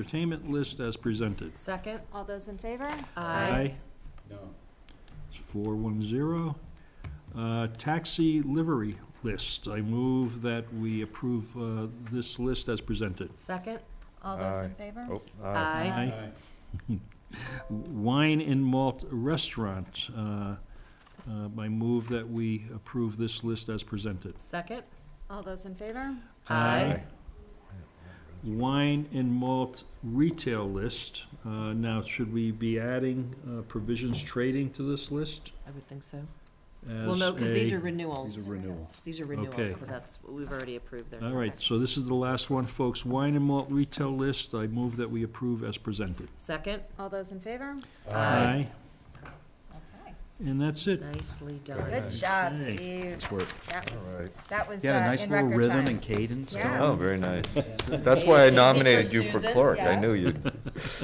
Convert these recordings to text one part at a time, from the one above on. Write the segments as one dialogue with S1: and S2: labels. S1: entertainment list as presented.
S2: Second?
S3: All those in favor?
S4: No.
S1: It's four one zero. Uh, Taxi livery list. I move that we approve uh, this list as presented.
S2: Second?
S3: All those in
S5: Aye.
S3: favor?
S5: Oh, aye.
S2: Aye.
S1: Aye. Wine and malt restaurant. uh, uh, I move that we approve this list as presented.
S2: Second?
S3: All those in favor?
S2: Aye.
S1: Wine and malt retail list. Uh, Now, should we be adding uh, provisions trading to this list?
S2: I would think so.
S1: as
S2: Well, no, because these
S1: a-
S2: are renewals.
S4: These are renewals.
S2: These are
S1: Okay.
S2: renewals, so that's, we've already approved their.
S1: All right, so this is the last one, folks. Wine and malt retail list, I move that we approve as presented.
S2: Second?
S3: All those in favor?
S2: Aye.
S3: Okay.
S1: And that's it.
S2: Nicely done.
S6: Good job,
S1: Okay.
S6: Steve.
S5: Nice work.
S6: That was,
S5: All right.
S6: that was uh,
S4: Yeah, nice
S6: in
S4: little
S6: record
S4: rhythm
S6: time.
S4: and cadence.
S6: Yeah.
S5: Oh, very nice. That's why I nominated you for
S2: Susan,
S5: clerk. I
S6: yeah.
S5: knew you'd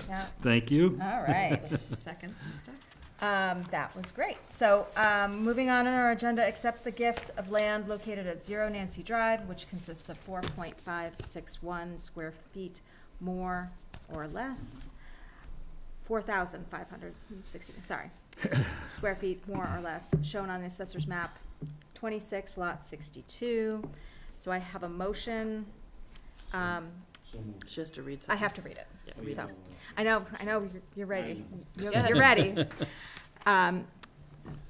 S6: Yeah.
S1: Thank you.
S6: All right.
S2: Seconds and stuff?
S6: Um, that was great. So, um, moving on in our agenda, accept the gift of land located at Zero Nancy Drive, which consists of four point five six one square feet more or less. Four thousand five hundred sixty, sorry, square feet more or less, shown on the assessor's map, twenty-six lot sixty-two. So I have a motion, um,
S2: Just to read
S6: I
S2: something.
S6: have to read it.
S2: Yeah, read
S6: So,
S2: it.
S6: I know, I know, you're- you're ready. You're
S2: Got it.
S6: you're ready. Um,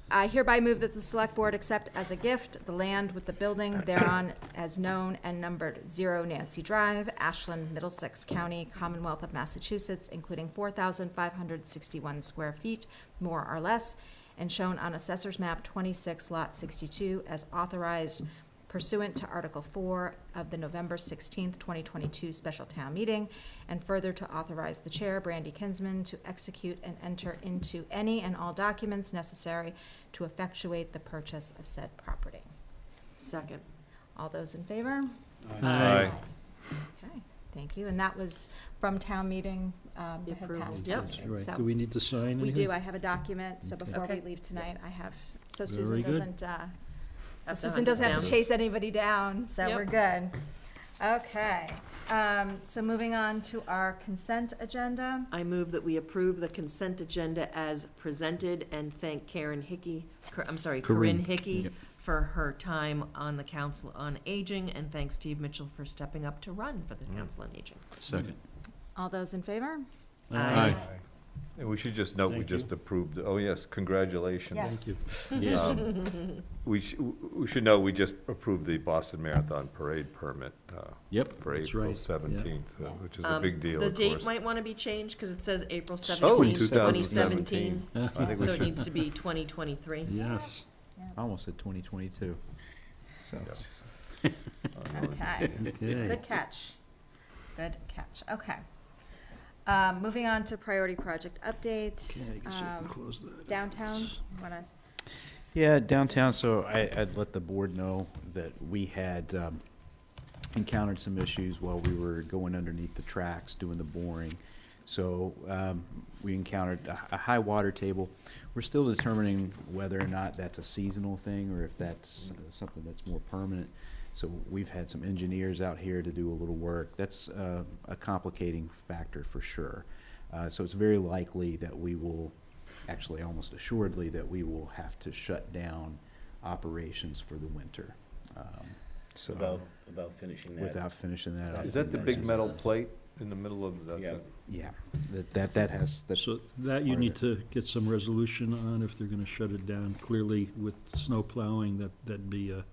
S6: I hereby move that the select board accept as a gift the land with the building thereon as known and numbered zero Nancy Drive, Ashland, Middlesex County, Commonwealth of Massachusetts, including four thousand five hundred sixty-one square feet, more or less, and shown on Assessor's Map twenty-six lot sixty-two as authorized pursuant to Article Four of the November sixteenth, twenty twenty-two special town meeting, and further to authorize the Chair, Brandy Kinsman, to execute and enter into any and all documents necessary to effectuate the purchase of said property.
S2: Second.
S6: All those in favor?
S5: Aye.
S6: Okay, thank you, and that was from town meeting, um, that had
S2: Approved.
S6: passed.
S2: Yep.
S6: town meeting.
S1: Right,
S6: So-
S1: do we need to sign anything?
S6: we do, I have a document, so before we
S2: Okay.
S6: leave tonight, I have, so
S1: Very
S6: Susan
S1: good.
S6: doesn't, uh, so
S2: Have to
S6: Susan
S2: hunt
S6: doesn't
S2: us
S6: have to
S2: down.
S6: chase anybody down, so
S2: Yep.
S6: we're good. Okay, um, so moving on to our consent agenda.
S2: I move that we approve the consent agenda as presented and thank Karen Hickey, Cor- I'm sorry, Corinne
S1: Corinne,
S2: Hickey for her time on the Council on Aging, and thank Steve Mitchell for stepping up to run for the
S5: Mm.
S2: Council on Aging.
S1: Second.
S6: All those in favor?
S2: Aye.
S5: And we should just note, we
S1: Thank
S5: just approved, oh yes, congratulations.
S6: Yes.
S1: Yes.
S5: Um, We sh- we should know, we just approved the Boston Marathon Parade permit uh,
S1: Yep,
S5: for
S1: that's
S5: April
S1: right.
S5: seventeenth, uh, which is a
S2: Um,
S5: big deal,
S2: The
S5: of
S2: date
S5: course.
S2: might want to be changed because it says April
S5: Oh, in
S2: seventeenth,
S5: 2017.
S2: twenty seventeen.
S5: I think we
S2: So it
S5: should-
S2: needs to be twenty twenty-three.
S1: Yes.
S4: Almost said twenty twenty-two. So.
S6: Okay,
S1: Okay.
S6: good catch. Good catch, okay. Um, moving on to priority project update.
S1: Okay, I guess I can
S6: Um,
S1: close that.
S6: Downtown, wanna,
S4: Yeah, downtown, so I, I'd let the board know that we had, um, encountered some issues while we were going underneath the tracks, doing the boring. So, um, we encountered a, a high water table. We're still determining whether or not that's a seasonal thing or if that's uh, something that's more permanent. So we've had some engineers out here to do a little work. That's, uh, a complicating factor for sure. Uh, so it's very likely that we will, actually almost assuredly that we will have to shut down operations for the winter. Um, So,
S7: Without, without finishing that.
S4: without finishing that up.
S5: Is that the
S4: and
S5: big
S4: that's-
S5: metal plate in the middle of, that's
S7: Yeah.
S5: it?
S4: Yeah, that, that, that has, that's,
S1: So that you
S4: Part of
S1: need
S4: it.
S1: to get some resolution on if they're gonna shut it down. Clearly, with snow plowing, that, that'd be a,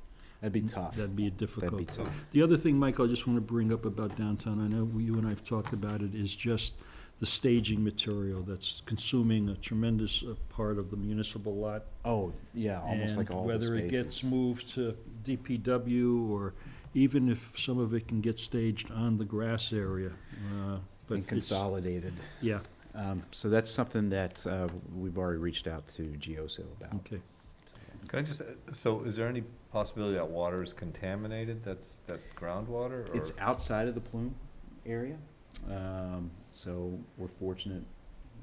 S4: that'd be tough.
S1: that'd be a
S4: That'd be
S1: difficult.
S4: tough.
S1: The other thing, Michael, I just want to bring up about downtown, I know you and I have talked about it, is just the staging material that's consuming a tremendous uh, part of the municipal lot.
S4: Oh, yeah, almost like
S1: And
S4: all the
S1: Whether it
S4: spaces.
S1: gets moved to DPW or even if some of it can get staged on the grass area. uh, but
S4: And
S1: it's-
S4: consolidated.
S1: Yeah,
S4: Um, so that's something that, uh, we've already reached out to GeoSil about.
S1: okay.
S5: Can I just, so is there any possibility that water is contaminated, that's, that groundwater? or-
S4: It's outside of the plume area, um, so we're fortunate,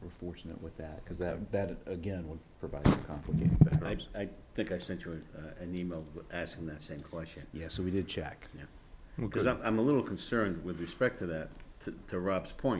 S4: we're fortunate with that, because that, that, again, would provide some complicating
S7: I,
S4: factors.
S7: I think I sent you a- an email asking that same question.
S4: Yeah, so we did check.
S7: Because I'm, I'm a little concerned with respect to that, to- to Rob's point.